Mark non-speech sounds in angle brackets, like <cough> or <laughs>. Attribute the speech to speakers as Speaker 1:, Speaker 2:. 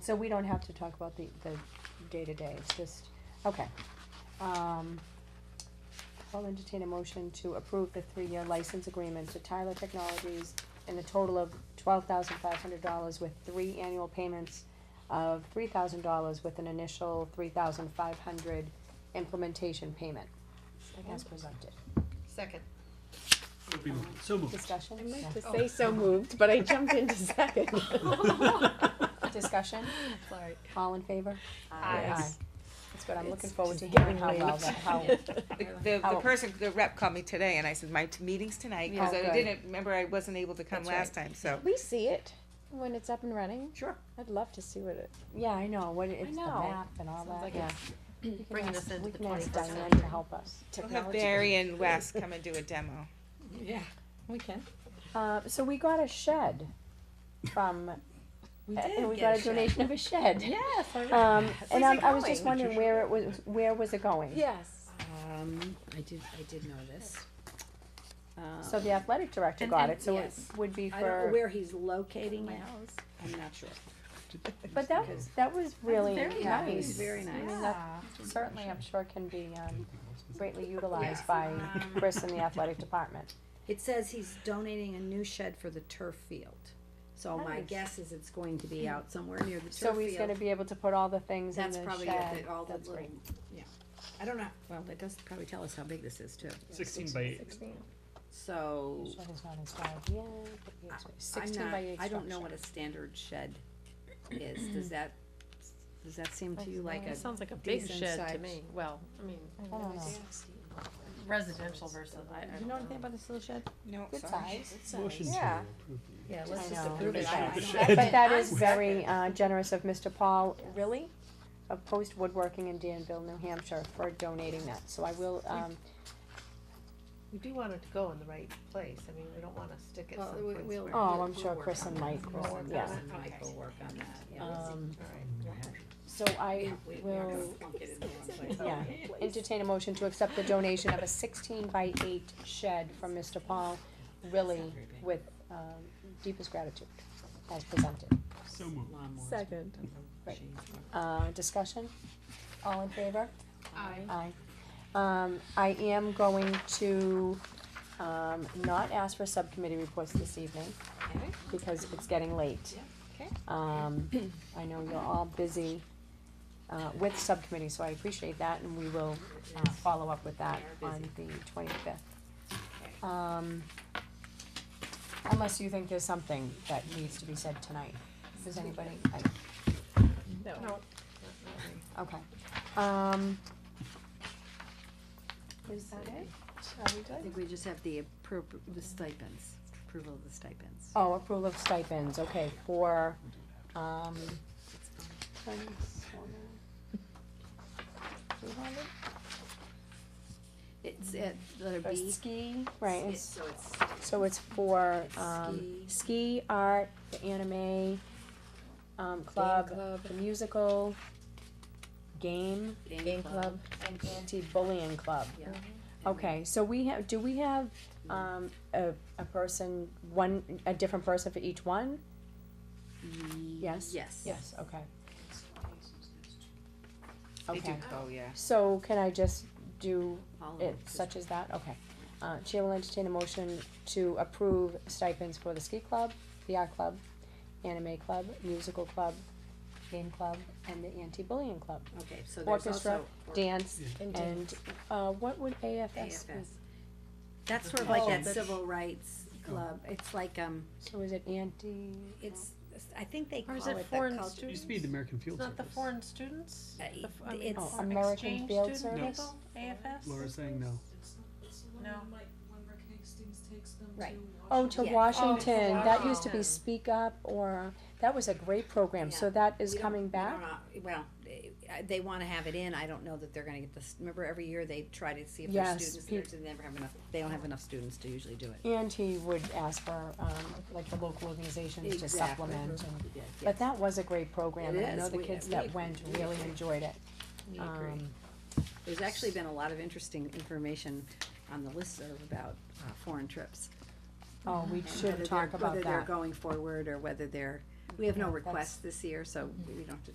Speaker 1: So we don't have to talk about the, the day-to-day, it's just, okay. Um, I'll entertain a motion to approve the three-year license agreement to Tyler Technologies in a total of twelve thousand five hundred dollars with three annual payments of three thousand dollars with an initial three thousand five hundred implementation payment as presented.
Speaker 2: Second.
Speaker 3: So be moved. So moved.
Speaker 1: Discussion?
Speaker 4: I meant to
Speaker 2: Oh.
Speaker 4: say so moved, but I jumped <laughs> into second.
Speaker 1: <laughs> Discussion?
Speaker 2: Sorry.
Speaker 1: All in favor?
Speaker 2: Aye.
Speaker 4: Yes.
Speaker 1: That's good, I'm looking
Speaker 4: It's
Speaker 1: forward to
Speaker 4: just
Speaker 1: hearing
Speaker 4: getting
Speaker 1: how well
Speaker 4: late.
Speaker 1: that,
Speaker 4: <laughs>
Speaker 1: how,
Speaker 5: The, the, the
Speaker 1: Oh.
Speaker 5: person, the rep called me today and I said, my t- meeting's tonight, cause
Speaker 1: Oh,
Speaker 5: I
Speaker 1: good.
Speaker 5: didn't, remember I wasn't able to come
Speaker 1: That's right.
Speaker 5: last time, so.
Speaker 4: We see it when it's up and running.
Speaker 5: Sure.
Speaker 4: I'd love to see what it.
Speaker 1: yeah, I know, what, it- it's the
Speaker 4: know.
Speaker 1: map and all
Speaker 2: Sounds
Speaker 1: that,
Speaker 2: like
Speaker 1: yeah.
Speaker 2: it's
Speaker 1: We can
Speaker 2: bringing
Speaker 1: ask-
Speaker 2: us into
Speaker 1: we
Speaker 2: the
Speaker 1: can ask
Speaker 2: 21st
Speaker 1: Diane
Speaker 2: century.
Speaker 1: to help us.
Speaker 5: We'll have
Speaker 1: <laughs>
Speaker 5: Barry and Wes come and do a demo.
Speaker 2: Yeah, we can.
Speaker 1: Uh, so we got a shed from,
Speaker 2: We
Speaker 1: and we got a donation of a
Speaker 2: <laughs>
Speaker 1: shed.
Speaker 2: Yes, I re-
Speaker 1: Um, and
Speaker 2: Where's
Speaker 1: I'm-
Speaker 2: it
Speaker 1: I was just
Speaker 2: going?
Speaker 1: wondering where it was, where was it going?
Speaker 4: Yes.
Speaker 6: Um, I did, I did notice.
Speaker 1: So the athletic director got it, so it
Speaker 6: yes.
Speaker 1: would be
Speaker 6: I don't know
Speaker 1: for,
Speaker 6: where he's locating
Speaker 4: My
Speaker 6: it,
Speaker 4: house.
Speaker 6: I'm not sure.
Speaker 1: but that was, that was really
Speaker 2: very
Speaker 1: nice.
Speaker 6: Yeah, it was Very
Speaker 1: I
Speaker 6: nice.
Speaker 1: mean, that certainly, I'm sure can be, um, greatly utilized by
Speaker 2: Um,
Speaker 1: Chris and the
Speaker 2: <laughs>
Speaker 1: athletic department.
Speaker 6: It says he's donating a new shed for the turf field. So my
Speaker 1: Nice.
Speaker 6: guess is it's going to
Speaker 4: Hmm.
Speaker 6: be out somewhere near the turf
Speaker 1: So
Speaker 6: field.
Speaker 1: he's gonna be able to put all the things in the
Speaker 6: That's
Speaker 1: shed.
Speaker 6: probably it, all the
Speaker 1: That's
Speaker 6: little,
Speaker 1: great.
Speaker 6: yeah. I don't know, well, it does probably tell us how big this is too.
Speaker 3: Sixteen by eight.
Speaker 6: So,
Speaker 1: Shed is not installed yet, but
Speaker 6: I-
Speaker 1: yes,
Speaker 6: I'm
Speaker 1: sixteen
Speaker 6: not,
Speaker 1: by eight
Speaker 6: I don't know what
Speaker 1: structure.
Speaker 6: a standard shed is. Does that, does that seem to you like a?
Speaker 4: It sounds like a big
Speaker 6: decent
Speaker 4: shed to
Speaker 6: size.
Speaker 4: me. Well, I mean,
Speaker 1: I don't know.
Speaker 4: residential versus, I, I don't
Speaker 2: You know
Speaker 4: know.
Speaker 2: anything about this little shed?
Speaker 5: No,
Speaker 1: Good
Speaker 5: sorry.
Speaker 1: size.
Speaker 3: Motion to
Speaker 5: Yeah.
Speaker 3: approve the-
Speaker 4: Yeah,
Speaker 1: let's I just know. approve
Speaker 6: it.
Speaker 3: Donation of the
Speaker 6: I- I
Speaker 3: shed.
Speaker 1: But
Speaker 6: <laughs>
Speaker 1: that is very uh, generous of Mr. Paul Riley of Post Woodworking in Danville, New Hampshire for donating that, so I will, um,
Speaker 2: We do want it to go in the right place, I mean, we don't wanna stick it
Speaker 6: Well, we-
Speaker 2: someplace
Speaker 6: we'll-
Speaker 2: where.
Speaker 1: oh, I'm
Speaker 6: we'll
Speaker 1: sure
Speaker 6: work
Speaker 1: Chris and Mike,
Speaker 2: We'll work on
Speaker 1: yeah.
Speaker 2: it.
Speaker 6: Mike will work on that, yeah.
Speaker 1: Um,
Speaker 2: Alright.
Speaker 1: so I
Speaker 6: We- we are gonna
Speaker 1: will
Speaker 6: plunk it in the wrong
Speaker 1: <laughs>
Speaker 6: place.
Speaker 1: Yeah, entertain a motion to accept the donation of a sixteen by eight shed from Mr. Paul Riley with, um, deepest gratitude as presented.
Speaker 3: So moved.
Speaker 6: Lawnmowers.
Speaker 4: Second.
Speaker 1: Right. Uh, discussion? All in favor?
Speaker 4: Aye.
Speaker 1: Aye. Um, I am going to, um, not ask for subcommittee reports this evening because it's getting late.
Speaker 2: Okay.
Speaker 1: <clears throat> Um, I know you're all busy, uh, with subcommittees, so I appreciate that and we will, uh, follow up with that on the twenty-fifth. Um, unless you think there's something that needs to be said tonight. Does anybody, I,
Speaker 4: No.
Speaker 1: Okay, um. Is that it? Are we
Speaker 6: I
Speaker 1: good?
Speaker 6: think we just have the appropri the stipends, approval of the stipends.
Speaker 1: Oh, approval of stipends, okay, for, um.
Speaker 6: It's at letter
Speaker 1: For
Speaker 6: B.
Speaker 1: ski, right, it's-
Speaker 6: It's- So it's,
Speaker 1: so it's for, um, ski,
Speaker 6: Ski.
Speaker 1: art, the anime, um, club,
Speaker 4: club.
Speaker 1: the musical, game,
Speaker 6: Game club.
Speaker 1: and anti-bullying club.
Speaker 6: yeah.
Speaker 1: Mm-hmm. Okay, so we have, do we have, um, a, a person, one, a different person for each one? Yes?
Speaker 6: Yes.
Speaker 1: Yes, okay.
Speaker 5: They do,
Speaker 1: Okay,
Speaker 5: oh, yeah.
Speaker 1: so can I just do
Speaker 6: All of
Speaker 1: it
Speaker 6: them.
Speaker 1: such as that? Okay. Uh, Chair will entertain a motion to approve stipends for the ski club, the art club, anime club, musical club, game club, and the anti-bullying club,
Speaker 6: Okay, so there's
Speaker 1: orchestra.
Speaker 6: also. or-
Speaker 1: dance,
Speaker 3: Yeah.
Speaker 4: And
Speaker 1: and, uh, what would AFS be?
Speaker 6: AFS. That's sort of like
Speaker 4: Oh,
Speaker 6: that
Speaker 4: that's-
Speaker 6: civil rights club. It's like, um,
Speaker 1: So is it anti?
Speaker 6: it's, I think they
Speaker 4: Or
Speaker 6: call
Speaker 4: is
Speaker 6: it
Speaker 4: it
Speaker 6: the
Speaker 4: foreign
Speaker 6: culture.
Speaker 3: It used to be the American Field Service.
Speaker 4: students?
Speaker 6: Uh,
Speaker 4: The f- I
Speaker 6: it-
Speaker 4: mean,
Speaker 6: it's-
Speaker 4: for
Speaker 1: Oh, American
Speaker 4: exchange
Speaker 1: Field
Speaker 4: student
Speaker 3: Service?
Speaker 4: people? AFS?
Speaker 3: Laura's saying no.
Speaker 7: It's the
Speaker 4: No.
Speaker 7: one when, like when Rick Hastings takes them
Speaker 6: Right.
Speaker 7: to
Speaker 1: Oh, to
Speaker 6: Yeah. Oh,
Speaker 1: Washington, that used to
Speaker 4: Washington.
Speaker 1: be Speak Up, or, that was a great program, so
Speaker 6: Yeah.
Speaker 1: that is
Speaker 6: We don't-
Speaker 1: coming
Speaker 6: we
Speaker 1: back?
Speaker 6: don't, uh, Well, they- uh, they wanna have it in, I don't know that they're gonna get this, remember every year they try to see if
Speaker 1: Yes,
Speaker 6: there's students,
Speaker 1: peop-
Speaker 6: there, so they never have enough, they don't have enough students to usually do it.
Speaker 1: And he would ask for, um, like the local organizations to
Speaker 6: Exactly.
Speaker 1: supplement, and,
Speaker 6: Yeah,
Speaker 1: but
Speaker 6: yeah.
Speaker 1: that was a great program,
Speaker 6: It
Speaker 1: and I know
Speaker 6: is.
Speaker 1: the
Speaker 6: We-
Speaker 1: kids
Speaker 6: we
Speaker 1: that
Speaker 6: agree.
Speaker 1: went
Speaker 6: We
Speaker 1: really
Speaker 6: agree.
Speaker 1: enjoyed it.
Speaker 6: We agree.
Speaker 1: Um,
Speaker 6: There's actually been a lot of interesting information on the listserv about uh, foreign trips.
Speaker 1: Oh, we
Speaker 6: and
Speaker 1: should
Speaker 6: whether
Speaker 1: talk
Speaker 6: they're-
Speaker 1: about
Speaker 6: Whether they're
Speaker 1: that,
Speaker 6: going forward or whether they're We have no
Speaker 1: Yeah, that's-
Speaker 6: requests this year, so we don't have to